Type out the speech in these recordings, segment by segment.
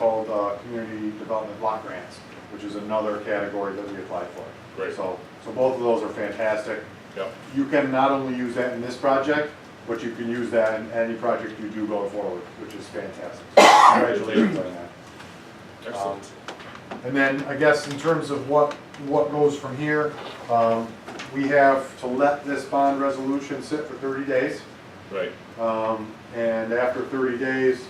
uh, community development block grants, which is another category that we applied for. Great. So, so both of those are fantastic. Yep, You can not only use that in this project, but you can use that in any project you do going forward, which is fantastic. So Congratulations on that. excellent. And then, I guess, in terms of what, what goes from here, um, we have to let this bond resolution sit for thirty days. Right, Um, and after thirty days,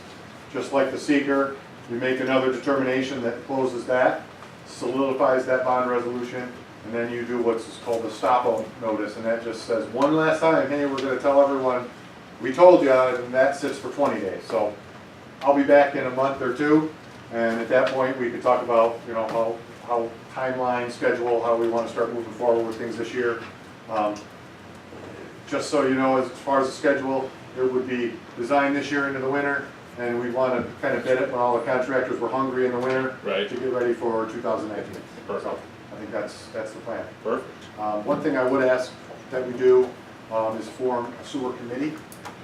just like the seeker, we make another determination that closes that, solidifies that bond resolution, and then you do what's called the stop notice, and that just says, one last time, hey, we're gonna tell everyone, we told you, and that sits for twenty days, so I'll be back in a month or two, and at that point, we could talk about, you know, how, how timeline, schedule, how we wanna start moving forward with things this year. Um, just so you know, as far as the schedule, it would be designed this year into the winter, and we want to kind of bid it when all the contractors were hungry in the winter to Right. get ready for 2019. So Perfect. I think that's, that's the plan. perfect, Um, One thing I would ask that we do um, is form a sewer committee.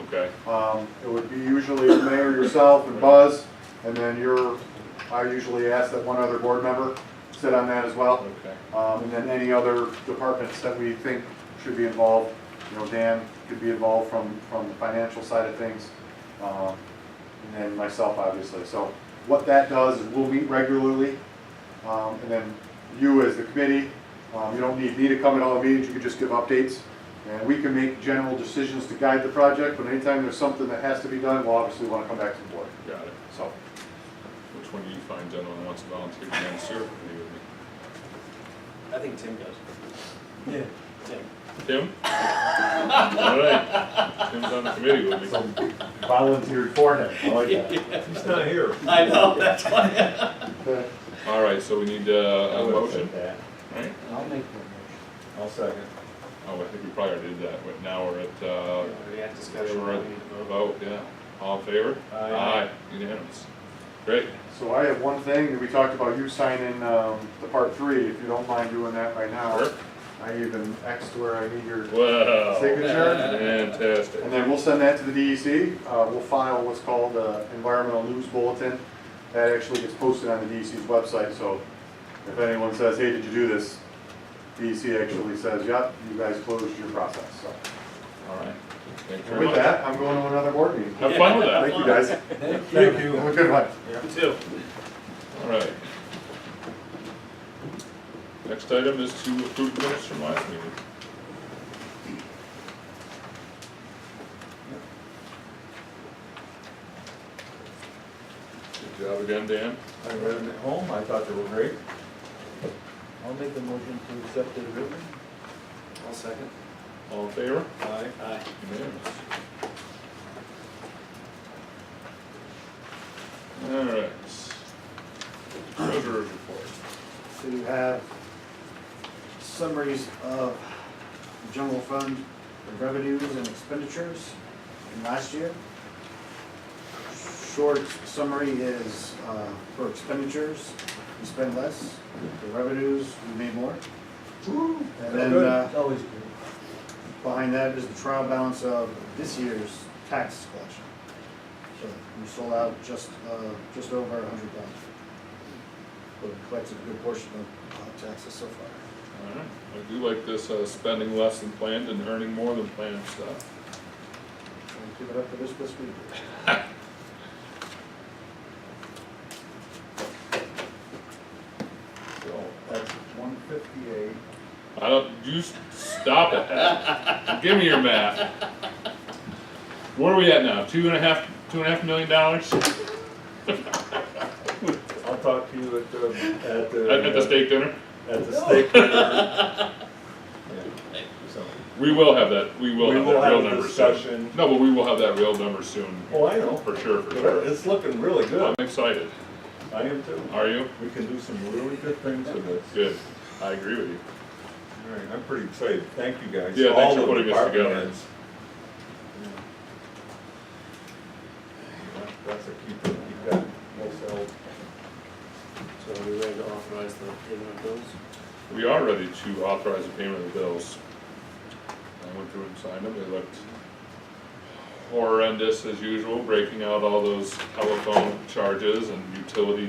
okay, Um, It would be usually the mayor, yourself, and Buzz, and then your, I usually ask that one other board member sit on that as well. okay, Um, And then any other departments that we think should be involved, you know, Dan could be involved from, from the financial side of things, um, and then myself, obviously. So what that does is we'll meet regularly, um, and then you as the committee, um, you don't need me to come at all the meetings, you can just give updates. And we can make general decisions to guide the project, but anytime there's something that has to be done, we'll obviously want to come back to the board, got it. so. Which one do you find gentlemen wants to volunteer to be on the sewer committee with me? I think Tim does. Yeah. Tim. Tim? All right, Tim's on the committee with me. Volunteered for it, I like He's not here. I know, that's why. that. All right, so we need uh, a motion, right? I'll make that I'll second. Oh, I think we probably already did that, but now we're at, uh, We had discussion. we're at vote, yeah. All in favor? Aye. unanimous. Great, So I have one thing, we talked about you signing um, the part three, if you don't mind doing that right now. Sure. Oh. I even Xed where I need your wow, signature. fantastic. And then we'll send that to the DEC. Uh, We'll file what's called the environmental news bulletin. That actually gets posted on the DEC's website, so if anyone says, hey, did you do this? DEC actually says, yep, you guys closed your process, so. All right, thank you And very with much. that, I'm going to another board meeting. Have fun with that. Thank you, guys. motion. Thank you. Have a good one. Two. All right. Next item is to approve the minutes from last meeting. Good job again, Dan. I read them at home, I thought they were great. I'll make the motion to accept the agreement. I'll second. All in favor? Aye. Aye. Unanimous. All right. Treasurer's report. So you have summaries of general fund revenues and expenditures from last year. Short summary is, uh, for expenditures, we spend less, for revenues, we made more. And then, uh, It's always good. behind that is the trial balance of this year's tax collection. So we sold out just, uh, just over a hundred thousand. But we collected a good portion of uh, taxes so far. All right. I do like this, uh, spending less than planned and earning more than planned stuff. Trying to keep it up for this fiscal year. So that's one fifty-eight. I don't, you s- stop at that. Give me your math. Where are we at now? Two and a half, two and a half million dollars at, I'll talk to you at the, at the. at the steak dinner? At the steak. Yeah, so. We will have that, we will We have will that have real a number soon. discussion. No, but we will have that real number soon. Oh, I know. For sure, for But sure. It's looking really I'm good. excited. I am too. Are you? We can do some really good things with this. Good. I agree with you. All right, I'm pretty excited. Thank you guys. Yeah, thanks All for the putting us department together. heads. Yeah, That's a keeper. You've got wholesale. So are we ready to authorize the payment of bills? We are ready to authorize the payment of the bills. I went through and signed them, they looked horrendous as usual, breaking out all those telephone charges and utility